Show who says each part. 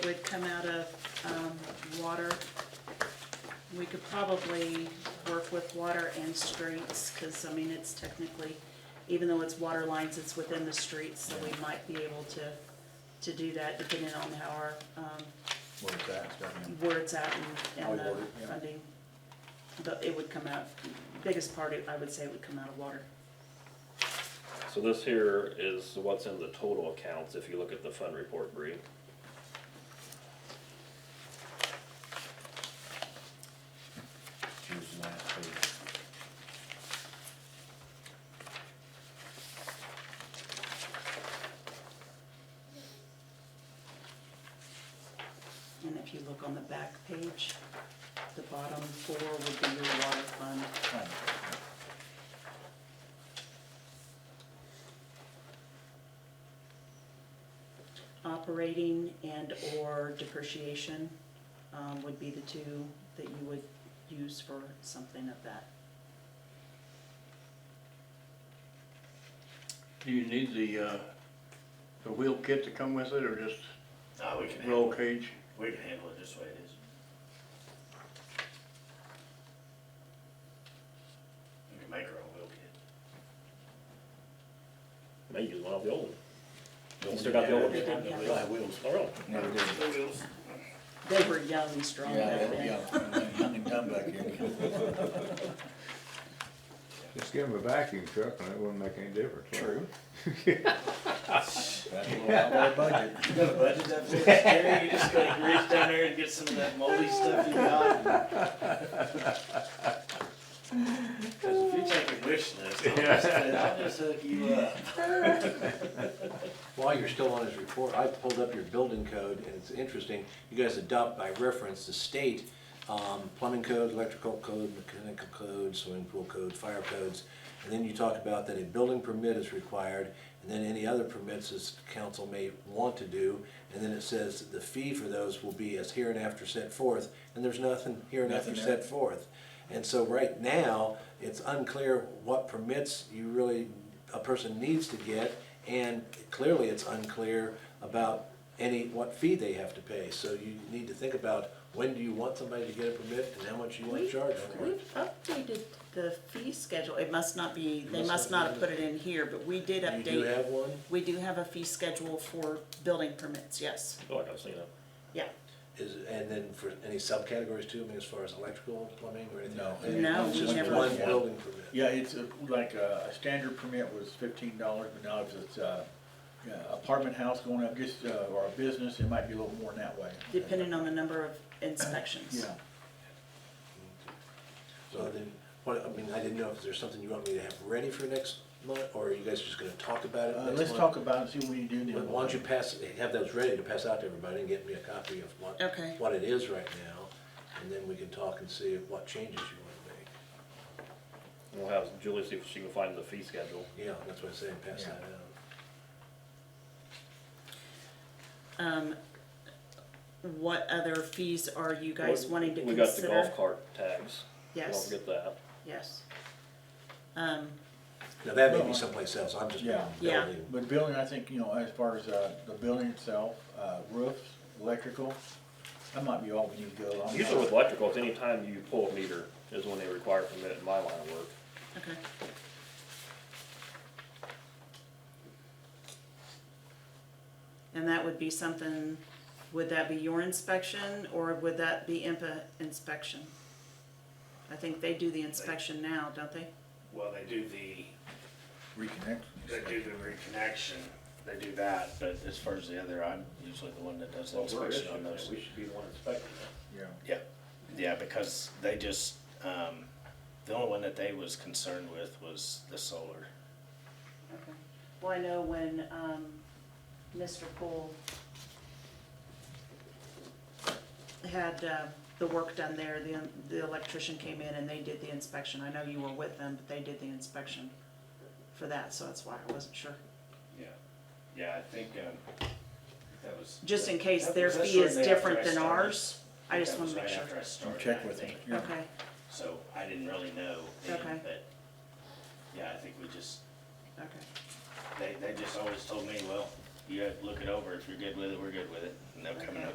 Speaker 1: would come out of um, water. We could probably work with water and streets, because, I mean, it's technically, even though it's water lines, it's within the streets, so we might be able to, to do that depending on how our, um,
Speaker 2: Where it's at, it's down there.
Speaker 1: where it's at and,
Speaker 2: How we
Speaker 1: and the
Speaker 2: word it, yeah.
Speaker 1: funding. But it would come out, biggest part, I would say, would come out of water.
Speaker 3: So this here is what's in the total accounts, if you look at the fund report, Bree.
Speaker 2: Here's the last page.
Speaker 1: And if you look on the back page, the bottom four would be your water fund.
Speaker 2: Kind of,
Speaker 1: Operating and/or depreciation um, would be the two that you would use for something of that.
Speaker 4: Do you need the, uh, the wheel kit to come with it, or just
Speaker 5: No, we can handle,
Speaker 4: roll cage?
Speaker 5: we can handle it this way it is. We can make our own wheel kit.
Speaker 3: May use one of the old ones.
Speaker 2: yeah.
Speaker 3: You still got the old
Speaker 1: They
Speaker 3: ones?
Speaker 1: didn't have it.
Speaker 2: wheels.
Speaker 3: Oh, really?
Speaker 2: Never did.
Speaker 5: No wheels.
Speaker 1: They were young and strong
Speaker 2: Yeah,
Speaker 1: back
Speaker 2: that'd be
Speaker 1: then.
Speaker 2: young, young and dumb back here.
Speaker 6: Just give them a vacuum truck and it wouldn't make any difference. would it?
Speaker 2: That's a little out of our budget.
Speaker 5: You got a budget that big, Terry, you just gotta reach down there and get some of that moldy stuff you got. Cause if you take a wish list, I'll just, I'll just hook you up.
Speaker 7: While you're still on his report, I pulled up your building code, and it's interesting, you guys adopt by reference the state um, plumbing code, electrical code, mechanical code, swimming pool code, fire codes, and then you talk about that a building permit is required, and then any other permits as council may want to do, and then it says that the fee for those will be as hereinafter set forth, and there's nothing hereinafter
Speaker 2: Nothing there.
Speaker 7: set forth. And so right now, it's unclear what permits you really, a person needs to get, and clearly it's unclear about any, what fee they have to pay. So you need to think about, when do you want somebody to get a permit, and how much you want
Speaker 1: We-
Speaker 7: to charge for it?
Speaker 1: We've updated the fee schedule. It must not be, they must not have put it in here, but we did
Speaker 7: You do
Speaker 1: update.
Speaker 7: have one?
Speaker 1: We do have a fee schedule for building permits, yes.
Speaker 3: I feel like I've seen it.
Speaker 1: Yeah.
Speaker 7: Is, and then for any subcategories too, I mean, as far as electrical, plumbing, or anything? like that?
Speaker 1: No,
Speaker 7: It's
Speaker 1: we
Speaker 7: just
Speaker 1: never-
Speaker 7: one building permit.
Speaker 2: Yeah, it's uh, like uh, a standard permit was fifteen dollars, but now if it's uh, yeah, apartment house going up, just, uh, or a business, it might be a little more than that way.
Speaker 1: Depending on the number of inspections.
Speaker 2: Yeah,
Speaker 7: So then, what, I mean, I didn't know if there's something you want me to have ready for next month, or are you guys just gonna talk about it next
Speaker 2: uh,
Speaker 7: month?
Speaker 2: let's talk about it, and see what you do
Speaker 7: Why
Speaker 2: then.
Speaker 7: don't you pass, have those ready to pass out to everybody and get me a copy of what,
Speaker 1: Okay.
Speaker 7: what it is right now? And then we can talk and see what changes you
Speaker 3: We'll
Speaker 7: wanna make.
Speaker 3: have Julie see if she can find the fee schedule.
Speaker 7: Yeah, that's what I'm saying, pass that out.
Speaker 1: Um, what other fees are you guys wanting to
Speaker 3: We
Speaker 1: consider?
Speaker 3: got the golf cart tax.
Speaker 1: Yes.
Speaker 3: Don't forget that.
Speaker 1: Yes. Um,
Speaker 7: Now, that may be someplace else, I'm just
Speaker 2: Yeah.
Speaker 1: Yeah.
Speaker 7: building.
Speaker 2: But building, I think, you know, as far as uh, the building itself, uh, roofs, electrical, that might be all we need to go along.
Speaker 3: Usually with electrical, it's any time you pull a meter is when they require a permit in my line of work.
Speaker 1: okay. And that would be something, would that be your inspection or would that be IMPA inspection? I think they do the inspection now, don't they?
Speaker 5: Well, they do the,
Speaker 2: Reconnect.
Speaker 5: they do the reconnection, they do that, but as far as the other, I'm usually the one that does the inspection on those.
Speaker 3: We should be the one inspecting that.
Speaker 2: Yeah.
Speaker 5: Yeah, yeah, because they just, um, the only one that they was concerned with was the solar.
Speaker 1: Okay. Well, I know when, um, Mr. Poole had, uh, the work done there, the, the electrician came in and they did the inspection. I know you were with them, but they did the inspection for that, so that's why I wasn't sure.
Speaker 5: Yeah. Yeah, I think, um, that was.
Speaker 1: Just in case
Speaker 5: That-
Speaker 1: their
Speaker 5: that's
Speaker 1: fee is
Speaker 5: right after I
Speaker 1: different than
Speaker 5: started.
Speaker 1: ours, I
Speaker 5: think
Speaker 1: just
Speaker 5: that
Speaker 1: wanna
Speaker 5: was
Speaker 1: make
Speaker 5: right
Speaker 1: sure.
Speaker 5: after I started,
Speaker 2: Check
Speaker 5: I
Speaker 2: with them.
Speaker 5: think.
Speaker 2: yeah.
Speaker 1: Okay,
Speaker 5: So I didn't really know then,
Speaker 1: Okay.
Speaker 5: but, yeah, I think we just,
Speaker 1: okay.
Speaker 5: they, they just always told me, well, you have to look it over, if you're good with it, we're good with it, and they'll come and